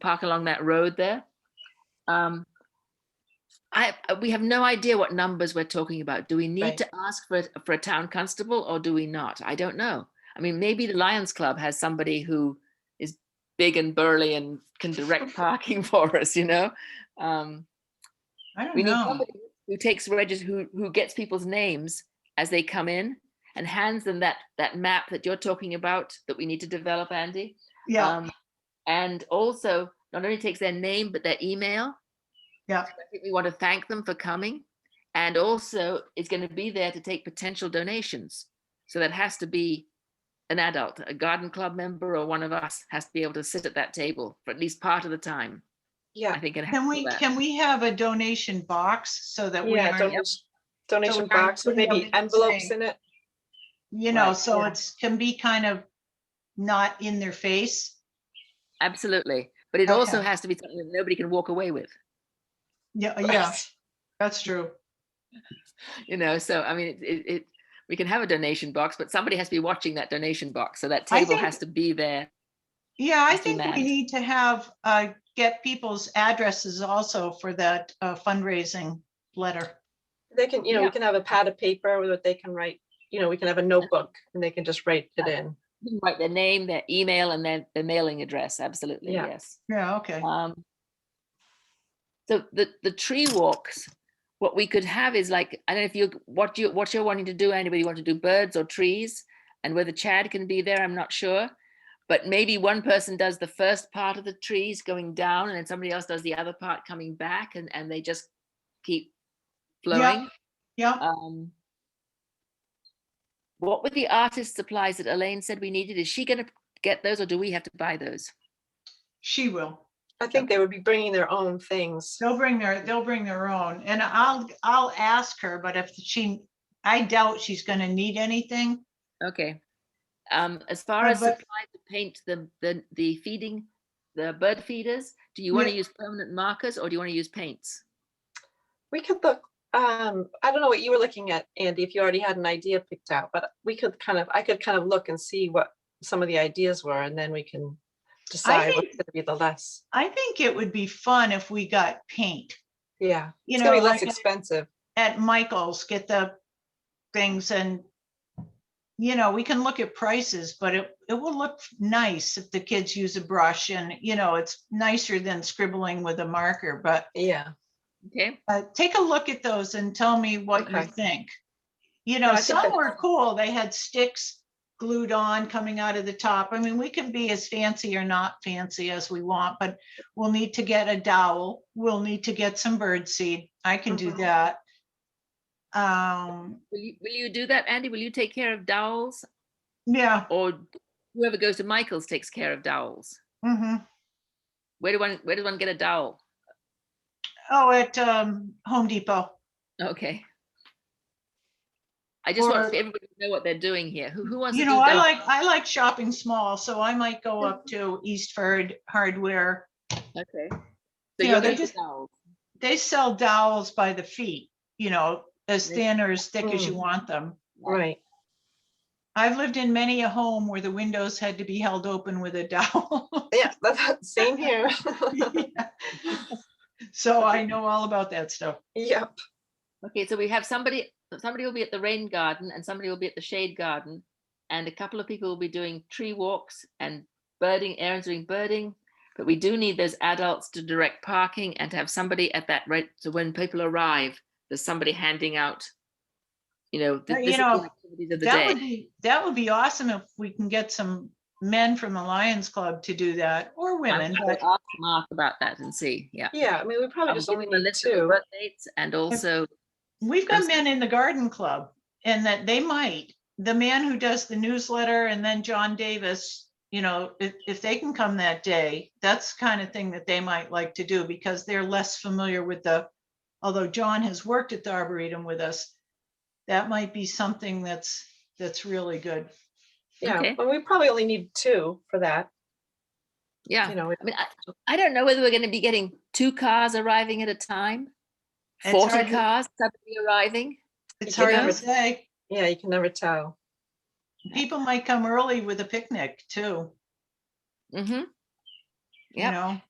park along that road there. Um, I, we have no idea what numbers we're talking about. Do we need Right. to ask for, a- for a town constable or do we not? I don't know. I mean, maybe the Lions Club has somebody who is big and burly and can direct parking for us, you know? Um, I don't we need know. somebody who takes regis, who, who gets people's names as they come in and hands them that, that map that you're talking about that we need to develop, Andy. Yeah, Um, and also not only takes their name, but their email. Yeah. So I think we want to thank them for coming. And also it's going to be there to take potential donations. So that has to be an adult, a garden club member or one of us has to be able to sit at that table for at least part of the time. I Yeah, think it has can to we, that. can we have a donation box so that we yeah, aren't, donation- donation we aren't box with putting maybe everything envelopes saying- in it. you know, Right, so yeah. it's, can be kind of not in their face? Absolutely. But it also Okay. has to be something that nobody can walk away with, Yeah, yeah, that's true. you know? So, I mean, it, it, it, we can have a donation box, but somebody has to be watching that donation box. So that I table think- has to be there. Yeah, I Must be think we mad. need to have, uh, get people's addresses also for that uh, fundraising letter. They can, you know, Yeah. we can have a pad of paper that they can write, you know, we can have a notebook and they can just write it in. You can Write their name, their email, and their, their mailing address, absolutely, Yeah. yes. Yeah, okay. Um, So the, the tree walks, what we could have is like, I don't know if you, what you, what you're wanting to do, anybody want to do birds or trees? And whether Chad can be there, I'm not sure. But maybe one person does the first part of the trees going down and then somebody else does the other part coming back and, and they just keep flowing. Yeah, Um, what were the artist supplies that Elaine said we needed? Is she going to get those or do we have to buy those? she will. I think they would be bringing their own things. They'll bring their, they'll bring their own and I'll, I'll ask her, but if she, I doubt she's gonna need anything. Okay. Um, as far Uh, as but- supplies to paint the, the, the feeding, the bird feeders, do you want to Yeah. use permanent markers or do you want to use paints? We could look, um, I don't know what you were looking at, Andy, if you already had an idea picked out, but we could kind of, I could kind of look and see what some of the ideas were and then we can decide what's think- gonna be the less. I think it would be fun if we got paint, Yeah, you it's know, gonna be less like expensive. at Michael's, get the things and you know, we can look at prices, but it, it will look nice if the kids use a brush and, you know, it's nicer than scribbling with a marker, but Yeah, Okay. uh, take a look at those and tell me what you Okay. think. You I know, think some that's- were cool. They had sticks glued on coming out of the top. I mean, we can be as fancy or not fancy as we want, but we'll need to get a dowel. We'll need to get some bird seed. I can do Mhm. that. Um, Will you, will you do that, Andy? Will you take care of dowels yeah. or whoever goes to Michael's takes care of dowels? hmm Where do one, where does one get a dowel? Oh, at um, Home Depot. Okay. I just want Or- everybody to know what they're doing here. Who, who wants to You do know, I dowels? like, I like shopping small, so I might go Mm-hmm. up to Eastford Hardware. Okay. Yeah, So you're they're going just- to dowels. they sell dowels by the feet, you know, as They- thin or as thick as you Mm. want them. right. I've lived in many a home where the windows had to be held open with a dowel. Yeah, that's same here. So I know all about that stuff. Yep. Okay, so we have somebody, somebody will be at the rain garden and somebody will be at the shade garden. And a couple of people will be doing tree walks and birding, Aaron's doing birding. But we do need those adults to direct parking and to have somebody at that rate. So when people arrive, there's somebody handing out, you know, Uh, the you physical know, activities of the That would day. be, that would be awesome if we can get some men from the Lions Club to do that or I'm women, gonna but Ask Mark about that and see, yeah. Yeah, I mean, we probably I'll just give only him a need list of the two. birth dates And also we've got I'm- men in the garden club and that they might, the man who does the newsletter and then John Davis, you know, if, if they can come that day, that's the kind of thing that they might like to do because they're less familiar with the, although John has worked at the Arboretum with us, that might be something that's, that's really good. Yeah, Okay. but we probably only need two for that, Yeah, you know. it- I mean, I, I don't know whether we're gonna be getting two cars arriving at a time. It's Forty hard to- cars suddenly arriving. It's You hard to never- say. Yeah, you can never tell. People might come early with a picnic too, hmm you Yep. know?